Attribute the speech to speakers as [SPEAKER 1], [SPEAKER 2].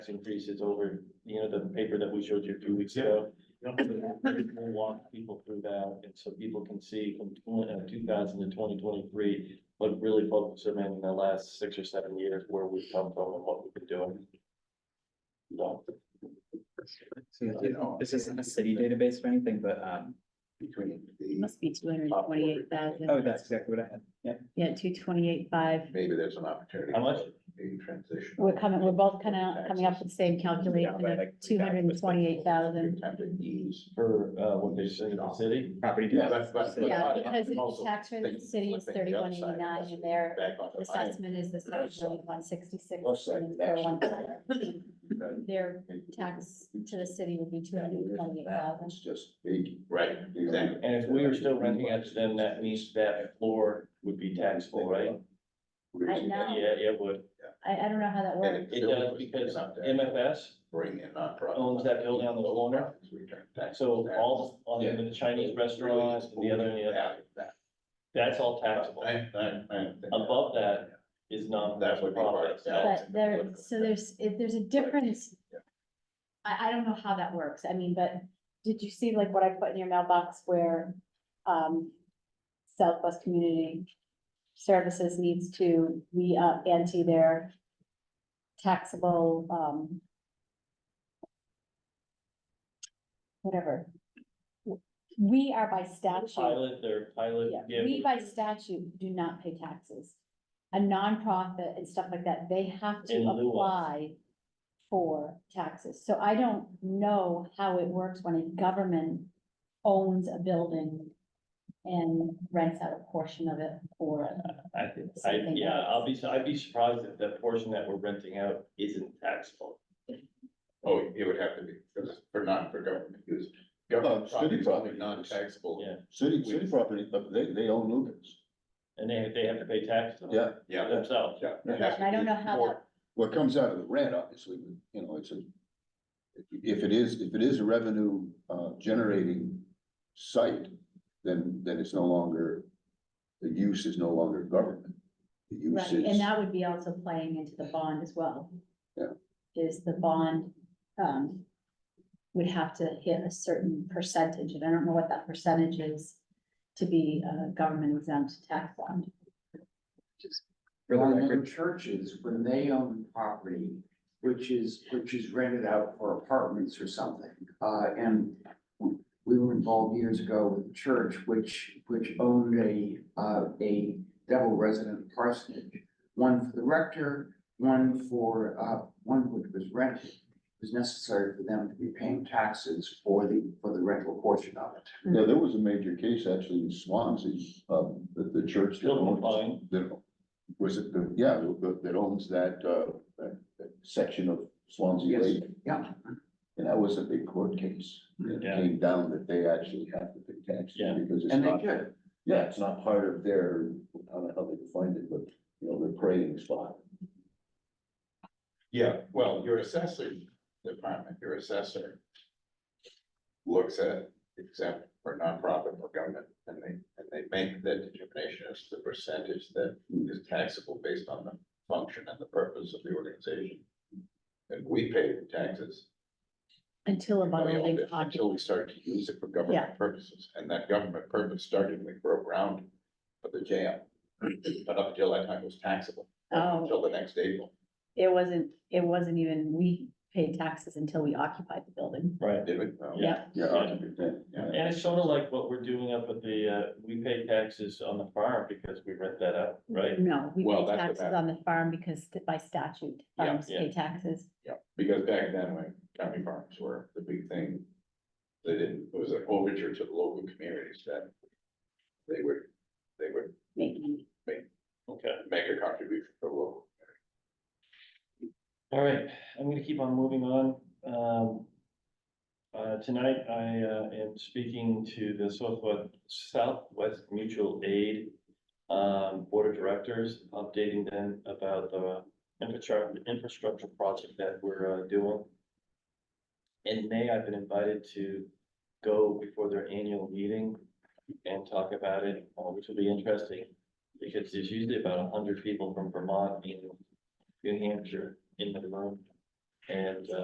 [SPEAKER 1] increases over, you know, the paper that we showed you a few weeks ago. We'll walk people through that, and so people can see from two thousand to twenty twenty-three, but really focus them in the last six or seven years where we've come from and what we've been doing. So,
[SPEAKER 2] This isn't a city database or anything, but, um,
[SPEAKER 3] Between
[SPEAKER 4] It
[SPEAKER 3] the,
[SPEAKER 4] Must be two hundred and twenty-eight
[SPEAKER 2] oh,
[SPEAKER 4] thousand,
[SPEAKER 2] that's exactly what I had. Yeah.
[SPEAKER 4] yeah, two twenty-eight, five.
[SPEAKER 3] maybe there's an opportunity.
[SPEAKER 1] How much?
[SPEAKER 3] for A transition.
[SPEAKER 4] We're coming, we're both kind of coming up with the same calculation of two hundred and twenty-eight thousand.
[SPEAKER 3] Time to ease.
[SPEAKER 1] for, uh, what they say in the city,
[SPEAKER 2] Property
[SPEAKER 3] Yeah,
[SPEAKER 2] tax.
[SPEAKER 3] that's, that's.
[SPEAKER 4] Yeah,
[SPEAKER 3] that's-
[SPEAKER 4] because the
[SPEAKER 3] also
[SPEAKER 4] tax rate of the
[SPEAKER 3] think
[SPEAKER 4] city is
[SPEAKER 3] flipping the
[SPEAKER 4] thirty-one
[SPEAKER 3] upside of
[SPEAKER 4] eighty-nine
[SPEAKER 3] this
[SPEAKER 4] and their
[SPEAKER 3] back onto the high
[SPEAKER 4] assessment is the seven one sixty-six.
[SPEAKER 3] Upside of that. end.
[SPEAKER 4] Their tax to the city would be two hundred and twenty-eight thousand.
[SPEAKER 3] It's just big, right, exactly.
[SPEAKER 1] and if we were still renting it, then that means that floor would be taxable, right?
[SPEAKER 4] I
[SPEAKER 1] Yeah,
[SPEAKER 4] know.
[SPEAKER 1] it would,
[SPEAKER 4] I, I don't know how that
[SPEAKER 3] And
[SPEAKER 4] works.
[SPEAKER 1] it does, because MFS,
[SPEAKER 3] Bring in nonprofit.
[SPEAKER 1] Owns that building on the corner. so all, on the the Chinese restaurants, and the other, and the other, that's all taxable.
[SPEAKER 3] I, I, I.
[SPEAKER 1] Above that is not.
[SPEAKER 3] That would be part of that.
[SPEAKER 4] But there, so there's, if there's a difference. I, I don't know how that works, I mean, but did you see like what I put in your mailbox where, um, Southwest Community Services needs to re-up ante their taxable, um, whatever. We are by statute.
[SPEAKER 1] Pilot, their pilot.
[SPEAKER 4] Yeah,
[SPEAKER 1] yeah,
[SPEAKER 4] we by statute do not pay taxes. A nonprofit and stuff like that, they have to
[SPEAKER 1] In lieu of.
[SPEAKER 4] apply for taxes. So I don't know how it works when a government owns a building and rents out a portion of it for,
[SPEAKER 1] I, think- I,
[SPEAKER 4] Something
[SPEAKER 1] yeah,
[SPEAKER 4] else.
[SPEAKER 1] I'll be, I'd be surprised if that portion that we're renting out isn't taxable.
[SPEAKER 3] Oh, it would have to be, because for non, for government use. Government
[SPEAKER 5] Oh, city
[SPEAKER 3] property is only
[SPEAKER 5] property.
[SPEAKER 3] non-taxable.
[SPEAKER 1] Yeah.
[SPEAKER 5] City, city property, but they, they own Lucas.
[SPEAKER 1] And they, they have to pay taxes on it
[SPEAKER 5] Yeah,
[SPEAKER 3] Yeah. that's-
[SPEAKER 1] themselves.
[SPEAKER 3] yeah,
[SPEAKER 5] Yeah.
[SPEAKER 3] that's-
[SPEAKER 4] and I don't know how that,
[SPEAKER 5] what comes out of the rent, obviously, you know, it's a. If it is, if it is a revenue, uh, generating site, then, then it's no longer, the use is no longer government. The
[SPEAKER 4] right,
[SPEAKER 5] use
[SPEAKER 4] and
[SPEAKER 5] is,
[SPEAKER 4] that would be also playing into the bond as well.
[SPEAKER 5] Yeah.
[SPEAKER 4] Is the bond, um, would have to hit a certain percentage, and I don't know what that percentage is to be a government exempt tax bond.
[SPEAKER 2] For the
[SPEAKER 6] Well,
[SPEAKER 2] record,
[SPEAKER 6] then churches, when they own property, which is, which is rented out for apartments or something, uh, and we were involved years ago with a church which, which owned a, uh, a devil resident parsonage. One for the rector, one for, uh, one which was rented. It was necessary for them to be paying taxes for the, for the rental portion of it.
[SPEAKER 5] yeah, there was a major case actually in Swansea, um, that the church. that
[SPEAKER 1] Still
[SPEAKER 5] owns-
[SPEAKER 1] complying.
[SPEAKER 5] that- Was it the, yeah, that- that owns that, uh, that, that section of Swansea
[SPEAKER 6] Yes.
[SPEAKER 5] Lake.
[SPEAKER 6] Yeah.
[SPEAKER 5] And that was a big court case. It
[SPEAKER 1] Yeah.
[SPEAKER 5] came down that they actually have to pay taxes
[SPEAKER 1] Yeah.
[SPEAKER 5] because it's
[SPEAKER 6] And they
[SPEAKER 5] not,
[SPEAKER 6] did.
[SPEAKER 5] yeah, it's not part of their, I don't know how they defined it, but, you know, their praying spot.
[SPEAKER 3] Yeah, well, your assessor department, your assessor. Looks at exempt for nonprofit or government and they, and they make that determination as to the percentage that is taxable based on the function and the purpose of the organization. And we pay the taxes.
[SPEAKER 4] Until a
[SPEAKER 3] and we
[SPEAKER 4] bond
[SPEAKER 3] owned
[SPEAKER 4] being
[SPEAKER 3] it Until we start to use it for
[SPEAKER 4] Yeah.
[SPEAKER 3] government purposes, and that government purpose started when we broke ground for the jail. But up until that time it was taxable, until
[SPEAKER 4] Oh,
[SPEAKER 3] the next April,
[SPEAKER 4] it wasn't, it wasn't even, we paid taxes until we occupied the building.
[SPEAKER 1] Right.
[SPEAKER 3] did we? No.
[SPEAKER 4] Yeah.
[SPEAKER 5] Yeah, a hundred percent, yeah.
[SPEAKER 1] And it's sort of like what we're doing up at the, uh, we pay taxes on the farm because we rent that out, right?
[SPEAKER 4] No, we
[SPEAKER 3] Well,
[SPEAKER 4] paid
[SPEAKER 3] that's what
[SPEAKER 4] taxes on
[SPEAKER 3] happened.
[SPEAKER 4] the farm because by statute,
[SPEAKER 3] Yeah,
[SPEAKER 4] farms
[SPEAKER 1] yeah.
[SPEAKER 4] pay taxes.
[SPEAKER 3] Because back then, when county farms were the big thing, they didn't, it was an overture to the local communities that they would, they would
[SPEAKER 4] Maybe. Mm-hmm.
[SPEAKER 1] Okay,
[SPEAKER 3] make a contribution for local.
[SPEAKER 1] all right, I'm gonna keep on moving on, um. Uh, tonight I, uh, am speaking to the Southwest, Southwest Mutual Aid. Um, Board of Directors, updating them about the infrastructure, infrastructure project that we're, uh, doing. In May, I've been invited to go before their annual meeting and talk about it, uh, which will be interesting. Because there's usually about a hundred people from Vermont and New Hampshire in the room. And, uh,